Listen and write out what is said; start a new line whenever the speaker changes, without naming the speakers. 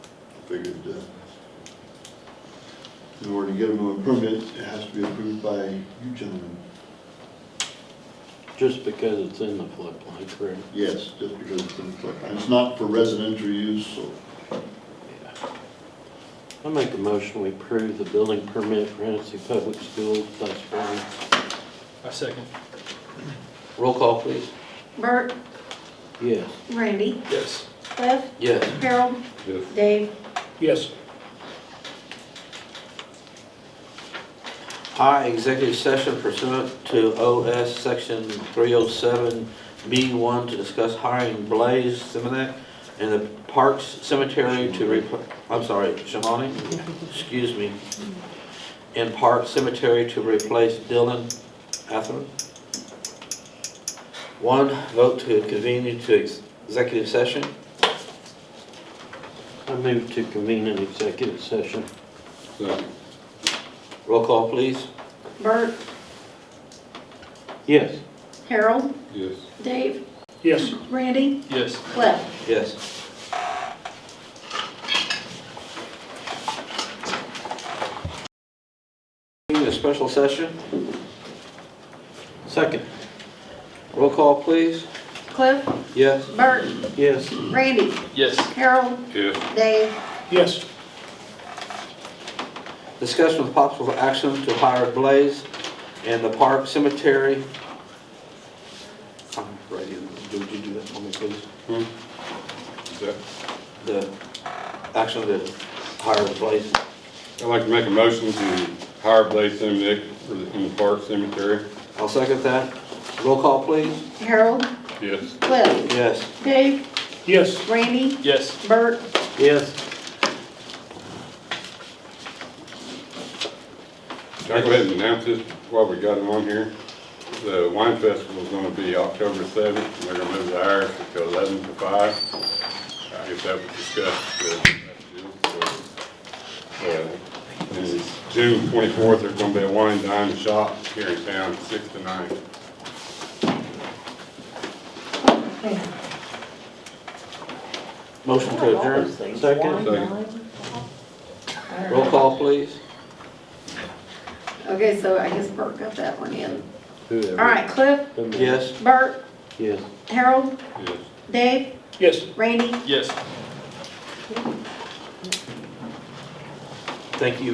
figured, uh, in order to get them a permit, it has to be approved by you gentlemen.
Just because it's in the floodplain, correct?
Yes, just because it's in the floodplain. It's not for residential use, so
I make a motion, we approve the building permit for Hennessy Public Schools, class one.
I second.
Roll call, please.
Bert,
Yes.
Randy,
Yes.
Cliff,
Yes.
Harold, Dave.
Yes.
I, executive session pursuant to OS Section 307B1 to discuss hiring Blaze Simonet in the Parks Cemetery to, repl- I'm sorry, Shamani, excuse me, in Park Cemetery to replace Dylan Atherton. One, vote to convene into ex- executive session. I move to convene an executive session. Roll call, please.
Bert,
Yes.
Harold,
Yes.
Dave,
Yes.
Randy,
Yes.
Cliff.
Yes. Need A special session? Second. Roll call, please.
Cliff,
Yes.
Bert,
Yes.
Randy,
Yes.
Harold,
Yes.
Dave.
Yes.
Discussion with possible action to hire Blaze in the Park Cemetery. I'm ready. Would you do that for me, please?
Is that-
The action to hire Blaze.
I'd like to make a motion to hire Blaze Simonek for the- in the Park Cemetery.
I'll second that. Roll call, please.
Harold,
Yes.
Cliff,
Yes.
Dave,
Yes.
Randy,
Yes.
Bert,
Yes.
Can I go ahead and announce this while we got him on here? The wine festival's gonna be October seventh, and they're gonna move the hours to eleven to five. I guess that was discussed, uh, so, uh, and June twenty-fourth, there's gonna be a wine dine shop here in town, six to nine.
Motion to adjourn, second. Roll call, please.
Okay, so I guess Bert got that one in. All right, Cliff,
Yes.
Bert,
Yes.
Harold,
Yes.
Dave,
Yes.
Randy,
Yes.
Thank you.